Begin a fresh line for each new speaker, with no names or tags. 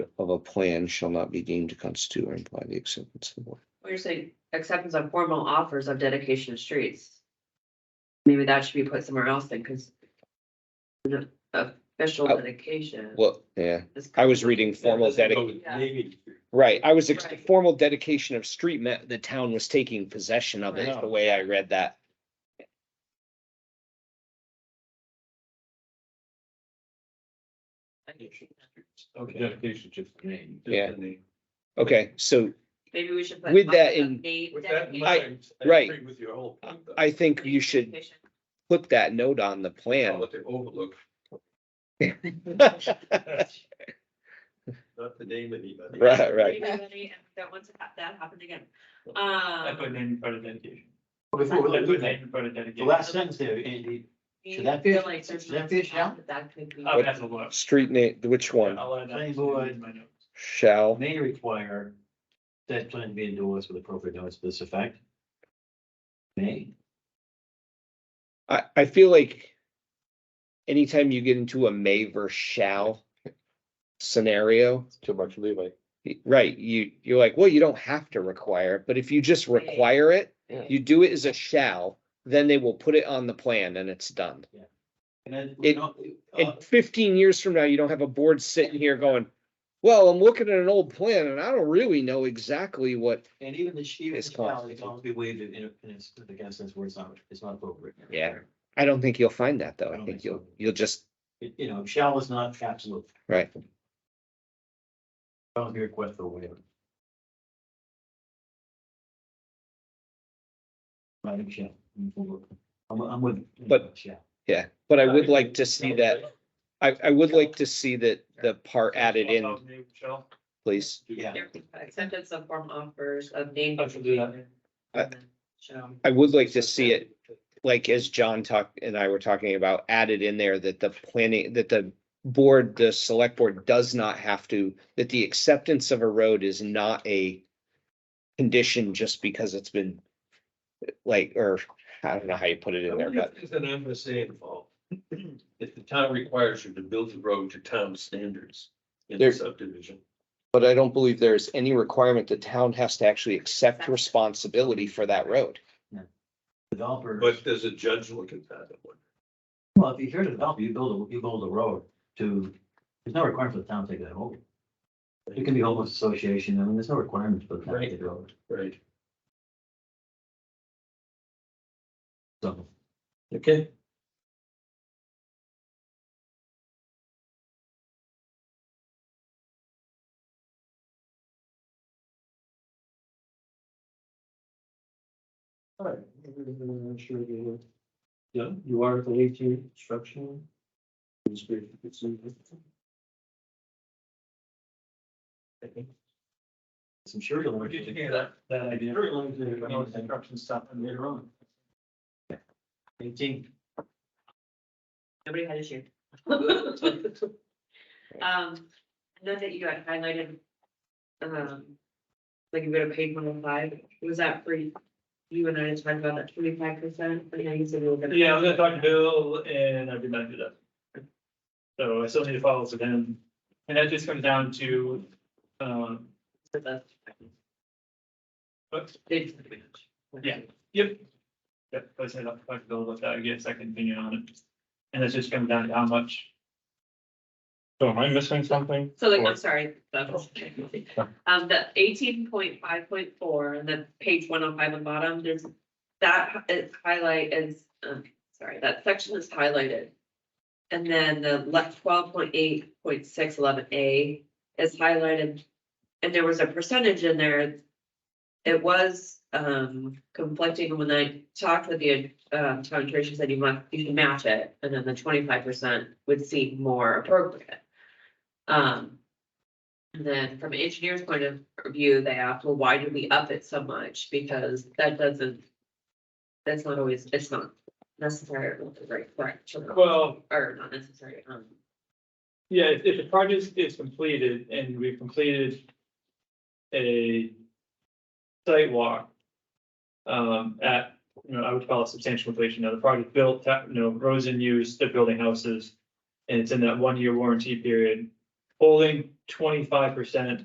of a plan shall not be deemed to constitute or imply the acceptance of. one.
Well, Oh, you're saying acceptance of formal offers of dedication of streets. Maybe that should be put somewhere else then, because. Official
Oh.
dedication.
Well, yeah,
is-
I was reading formal dedication. Right, I was, ex-
Right.
formal dedication of street meant the town was taking possession of it,
Right.
the way I read that.
Okay, dedication just the name. just the
Yeah.
name.
Okay, so
Maybe we should put.
With that in-
Name
With that
dedication.
in mind, I
right.
agree With your whole. point, though.
I think you should
Dedication.
put that note on the plan.
Call it the overlook, not the name of anybody.
Right, right.
Anybody That wants to have that happen again.
I
Um.
put name in front of dedication. I
Before,
put
the
name in front of dedication.
last sentence there, Andy, Should that
feel
fish-
like there's
should that Oh,
not
fish
enough
out?
that That could be.
I'll have to look.
Street name, which one?
I'll add that
Planning
to
board.
my notes.
Shall,
may require that plan to be endorsed with appropriate notice to this effect. May.
I, I feel like anytime you get into a may versus shall scenario,
Too much leeway.
right, you, you're like, well, you don't have to require, it, but if you just
Right.
require it,
Yeah.
you do it as a shall, then they will put it on the plan and it's done.
And then.
It-
no,
In
uh,
fifteen years from now, you don't have a board sitting here going, well, I'm looking at an old plan and I don't really know exactly what.
And even the she,
It's
it's always
constituted.
be waived in, in, its- against this where it's not, it's not appropriate.
Yeah. I don't think you'll find that though.
I
I
don't
think
think
you'll,
so.
you'll just,
It- You know, shall is not absolute,
right.
shall be request for waiver. Right, shall, I'm, I'm with.
But-
Shall.
Yeah, but I would
agree.
like to see that, I, I would like to see that the part added in,
Name, Michelle.
please.
Yeah.
Acceptance of form offers of name.
I should do that.
dedication.
I-
And then show.
I would like to see it, like as John talked and I were talking about, added in there that the planning, that the board, the select board does not have to, that the acceptance of a road is not a condition just because it's been like, or I don't know how you put it
I
in there,
wonder
but
if There's an MSA involved. If the town requires you to build the road to town standards in the
There-
subdivision.
but I don't believe there's any requirement the town has to actually accept responsibility for that road.
Developers.
But does a judge look at that? one?
Well, if you're here to develop, you build, a you build a road to, there's no requirement for the town to take that over. It can be homeless association, I mean, there's no requirement for the town to take it over,
Right.
so.
Okay.
Alright. Yeah, you are the eighteen instruction. I'm sure you'll.
Where did you hear that, that idea?
Sure you'll learn
When I was
to-
instruction stuff and later on.
Eighteen.
Nobody had issue. Um, I know Um, that you had highlighted, um, like you go to page one oh five, was that for you? You and I had talked about that twenty-five percent, and now you said we were gonna.
Yeah, I was gonna talk to Bill and I did not do that. So I still need to follow up with him. And that just comes down to, um, but,
Did-
Yeah. yep. Yep, I said I'll talk to Bill about that, get a second opinion on it. And that's just comes down to how much.
So am I missing something?
So like, I'm
Or-
sorry, that was- um, the eighteen point five point four, and then page one oh five on bottom, there's. That is highlight is, um, sorry, that section is highlighted. And then the left twelve point eight point six eleven A is highlighted, and there was a percentage in there. It was, um, conflicting when I talked with the, um, town attorney, she said you must, you should match it, and then the twenty-five percent would seem more appropriate. Um. And then from an engineer's point of view, they asked, well, why do we up it so much? Because that doesn't. That's not always, it's not necessary, right, right,
Well,
or not necessary, um.
Yeah, if, if the project is completed and we've completed a site walk um, at, you know, I would call it substantial completion. Now, the project built, ta- you know, roads in use, they're building houses, and it's in that one-year warranty period. holding twenty-five percent